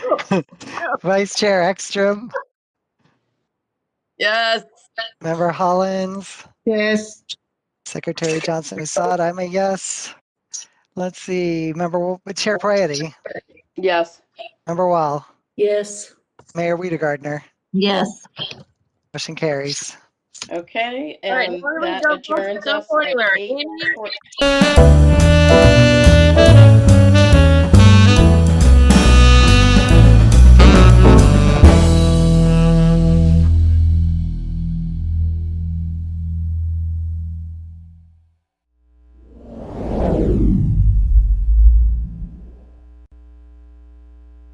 Vice Chair Ekstrom, Yes. Member Hollins, Yes. Secretary Johnson Musad, I'm a yes. Let's see, Member Wo- Chair Prayati, Yes. Member Wall, Yes. Mayor Weidergardner, Yes. motion carries. Okay, All right, and why don't we that go adjourns to the us formula? at Amy? 8:14.